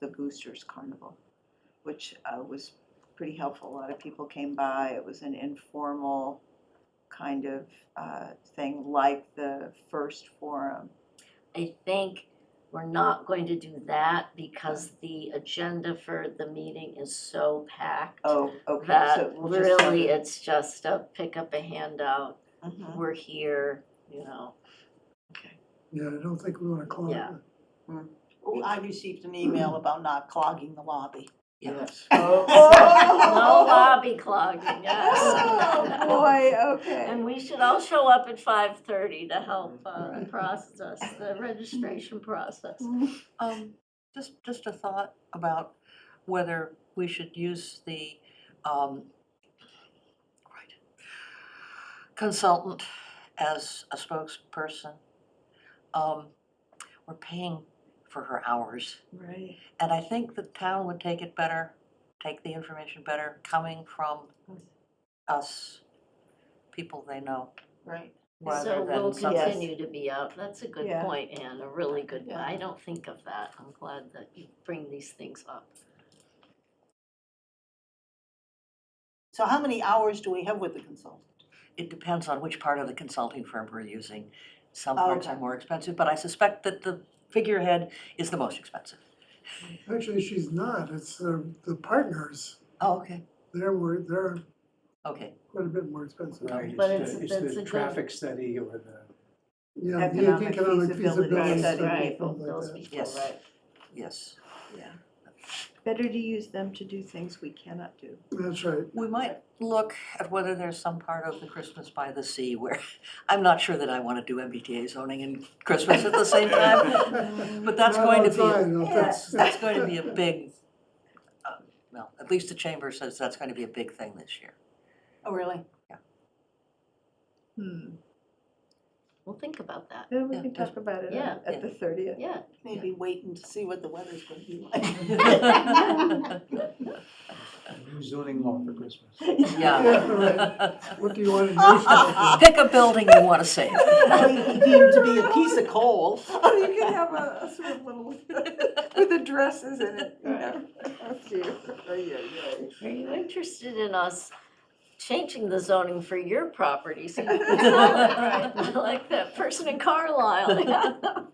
the Boosters Carnival, which uh, was pretty helpful. A lot of people came by. It was an informal kind of uh, thing like the first forum. I think we're not going to do that because the agenda for the meeting is so packed. Oh, okay. so That we'll just have really, it. it's just a pick up a handout, Mhm. we're here, you know, Yeah, I don't think we wanna call it. Yeah. Oh, I received an email about not clogging the lobby. Yes. no Oh, lobby clogging, Oh, yes. boy, okay. And we should all show up at five thirty to help uh process the registration process. Um, just, just a thought about whether we should use the, um, right, consultant as a spokesperson. Um, we're paying for her hours, Right. and I think the town would take it better, take the information better coming from us, people they know, Right. rather So we'll than something. Yes. continue to be out, that's a good Yeah. point, Anne, a really good one, Yeah. I don't think of that, I'm glad that you bring these things up. So how many hours do we have with the consultant? It depends on which part of the consulting firm we're using. Some parts are Okay. more expensive, but I suspect that the figurehead is the most expensive. Actually, she's not, it's uh, the partners, Oh, okay. they're, wor- they're Okay, quite a bit more expensive. Right, But it's it's- the, that's it's a the good- traffic study or the, Yeah, the Economic feasibility feasibility study, study, right, things like Those that. people, Yes. right. yes. Better to use them to do things we cannot do. That's right, We might look at whether there's some part of the Christmas by the Sea where, I'm not sure that I want to do MBTA zoning and Christmas at the same time, Oh, but that's Not going to all be, a- time, no, that's- that's, that's going to be a big, uh, well, at least the chamber says that's going to be a big thing this year. Oh, really? Hmm. We'll think about that, Then we Yeah, can talk about it yeah, at- at the thirtieth. yeah. Maybe waiting to see what the weather's gonna be like. Yeah. new zoning law for Christmas. Yeah, what do you wanna do? Sophie? Pick a building you want to save. Really deemed to be a piece of coal. Oh, You can have a, a sort of little, with the dresses in it, you know. Oh, dear. Oh, yeah, yeah. Are you interested in us changing the zoning for your property? so you can sell it? Right. I Like that person in Carlisle.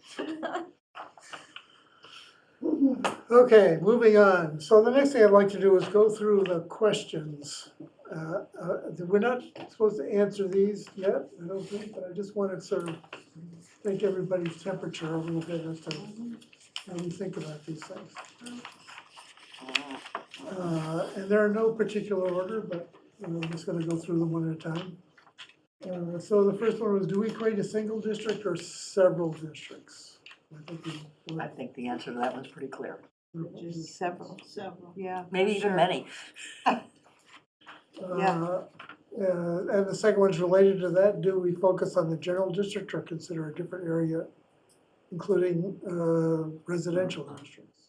Okay, moving on. So the next thing I'd like to do is go through the questions. Uh, uh, We're not supposed to answer these yet, I don't think, but I just want to sort of take everybody's temperature a little bit as to how we think about these things. Uh, And there are no particular order, but you know, I'm just going to go through them one at a time. Uh, So the first one was, do we create a single district or several districts? I think we- I think the answer to that one's pretty clear. Just several, Several. yeah. Maybe even Sure. many. Yeah. Uh, uh, And the second one's related to that, do we focus on the general district or consider a different area, including uh, residential districts?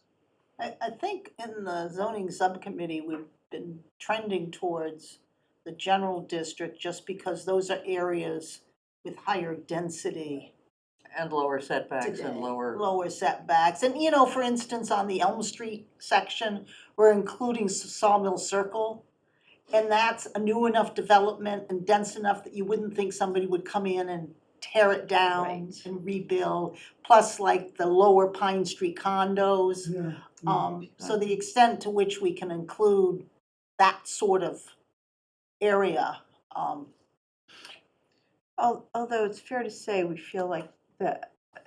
I, I think in the zoning subcommittee, we've been trending towards the general district just because those are areas with higher density, And lower setbacks Today. and lower, lower setbacks. And, you know, for instance, on the Elm Street section, we're including S- Sawmill Circle. And that's a new enough development and dense enough that you wouldn't think somebody would come in and tear it down Right. and rebuild. Plus like the lower Pine Street condos. Yeah. Um, so the extent to which we can include that sort of area, um, Al- Although it's fair to say, we feel like the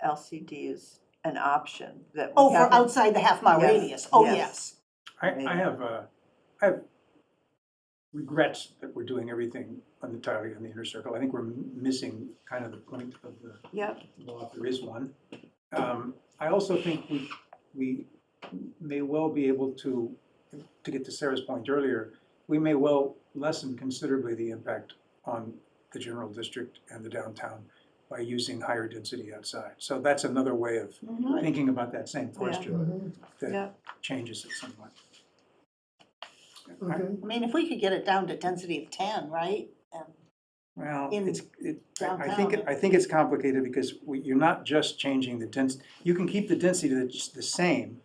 LCD is an option that we oh, for haven't- outside the half mile Yes, radius, oh, yes. yes. I, Maybe. I have, uh, I have regrets that we're doing everything on the entirely on the inner circle. I think we're m- missing kind of the point of the Yep, law, if there is one. Um, I also think we, we may well be able to, to get to Sarah's point earlier, we may well lessen considerably the impact on the general district and the downtown by using higher density outside. So that's another way of thinking about that same question Mhm, that yeah, changes it somewhat. Okay, I mean, if we could get it down to density of ten, right? And- Well, in it's, it, I- I downtown. think, it- I think it's complicated because we- you're not just changing the dens, you can keep the density that's the same,